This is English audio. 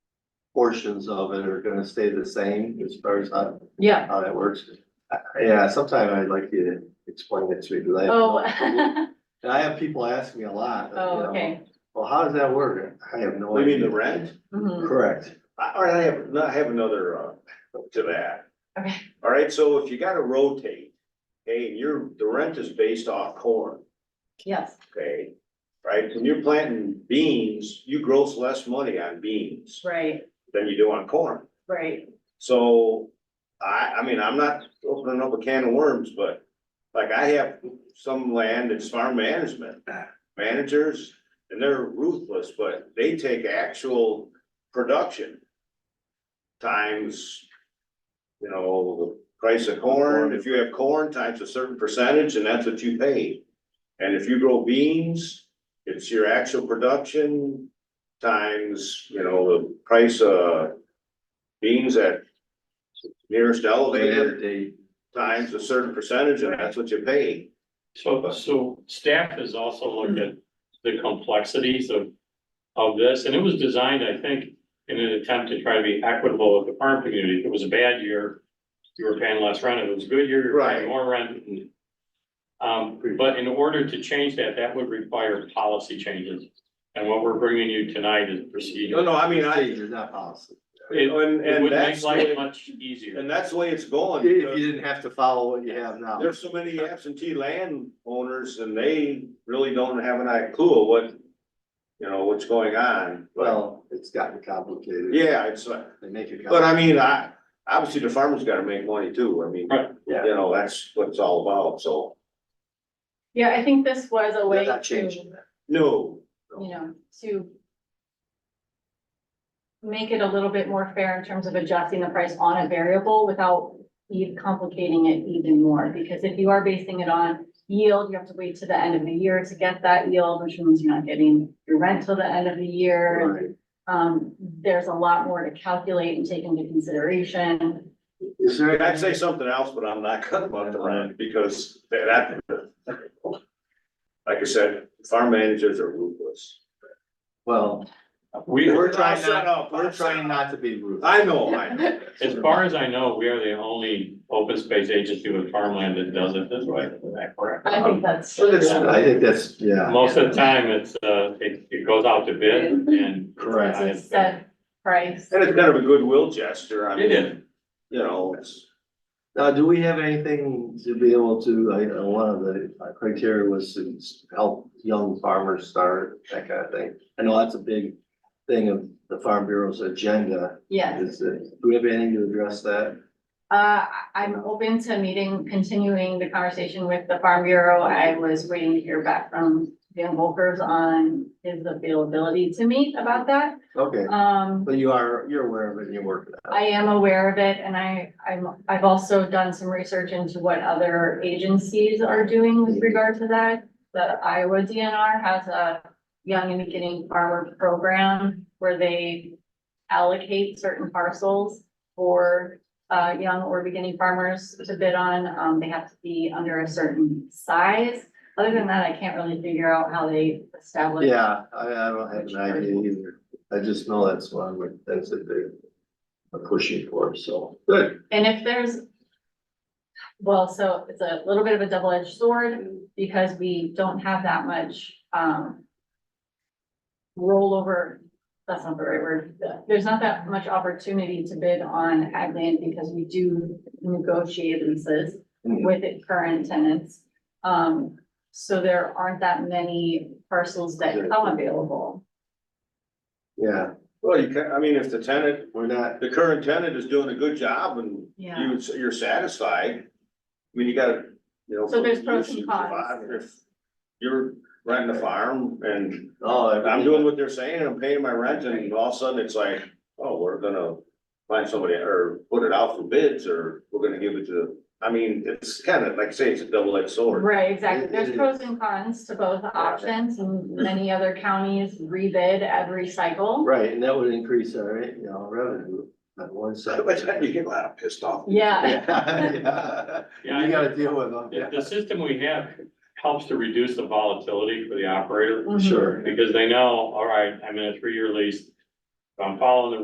portions of it are gonna stay the same as far as how, Yeah. how that works. I- Yeah, sometime I'd like you to explain it to me, because I. have no clue. Oh, And I have people ask me a lot. you oh, know, okay. Well, how does that work? I have no You idea. mean the rent? Mhm. Correct. I- All right, I have, no, I have another, uh, to that. Okay. All right, so if you gotta rotate, okay, and your, the rent is based off corn, Yes, okay? Right, when you're planting beans, you gross less money on beans right, than you do on corn. right. So, I, I mean, I'm not opening up a can of worms, but like I have some land that's farm management. Managers, and they're ruthless, but they take actual production. Times, you know, the price of corn, if you have corn times a certain percentage, and that's what you pay. And if you grow beans, it's your actual production times, you know, the price of beans at nearest elevator They- times a certain percentage, and that's what you pay. So, so staff has also looked at the complexities of, of this, and it was designed, I think, in an attempt to try to be equitable with the farm community. If it was a bad year, you were paying less rent. If it was a good year, you were Right. paying more rent. Um, but in order to change that, that would require policy changes. And what we're bringing you tonight is No, procedure. no, I mean, I, Change is not possible. It- and, It and would make that's, the life way- much easier. and that's the way it's going. If because you didn't have to follow what you have now. There's so many absentee landowners and they really don't have an eye clue of what, you know, what's going on. But, Well, it's gotten complicated. yeah, it's, like- They make it. but I mean, I, obviously the farmer's gotta make money too. I mean, Right. Yeah. you know, that's what it's all about, so. Yeah, I think this was a way They're not to, changing you that. No, know, to make it a little bit more fair in terms of adjusting the price on a variable without even complicating it even more. Because if you are basing it on yield, you have to wait to the end of the year to get that yield, which means you're not getting your rent till the end of the year. Right. Um, there's a lot more to calculate and take into consideration. Is there? I'd say something else, but I'm not cutting about the rent because that. Like I said, farm managers are ruthless. Well, We, we're I'll trying shut not, up, we're I'll shut trying up. not to be rude. I know, I know. As far as I know, we are the only open space agency with farmland that does it this way, is that correct? Um, I Um, think that's. But it's- I think that's, yeah, Most of the time, it's, uh, it, it goes out to bid and. Correct. It's a set price. And it's kind of a goodwill gesture, I mean. It is. You know, it's, now, do we have anything to be able to, I, uh, one of the criteria was to s- help young farmers start, that kind of thing. I know that's a big thing of the Farm Bureau's agenda, Yes, is that, do we have anything to address that? uh, I- I'm open to meeting, continuing the conversation with the Farm Bureau. I was waiting to hear back from Dan Volkers on his availability to meet about that. Okay, Um, but you are, you're aware of it and you're working on I am aware of it and I, I'm, I've also done some research into what other agencies are doing with regard to that. The Iowa DNR has a young and beginning farmer program where they allocate certain parcels for uh, young or beginning farmers to bid on. Um, they have to be under a certain size. Other than that, I can't really figure out how they it. establish. Yeah, I, I don't have an idea either. I just know that's one, where- that's a big, a pushing for, so. Good. And if there's, well, so it's a little bit of a double-edged sword because we don't have that much, um, rollover, that's not the right word. There's not that much opportunity to bid on ag land because we do negotiate leases with it- current tenants. Um, so there aren't that many parcels that come available. Yeah, well, you can, I mean, if the tenant, we're not, the current tenant is doing a good job and Yeah. you, you're satisfied. I mean, you gotta, you know. So there's pros and you cons. survive. If You're renting a farm and oh. I'm doing what they're saying, and I'm paying my rent, and all of a sudden it's like, oh, we're gonna find somebody or put it out for bids, or we're gonna give it to, I mean, it's kind of, like I say, it's a double-edged sword. Right, exactly. It- There's it pros is. and cons to both options and many other counties rebid every cycle. Right, and that would increase our, you know, revenue on one side. By the time you get a lot of pissed off. Yeah, Yeah, yeah. Yeah, I- You gotta deal with them, The, yeah. the system we have helps to reduce the volatility for the operator, Mhm. Sure. because they know, all right, I'm in a three-year lease. If I'm following the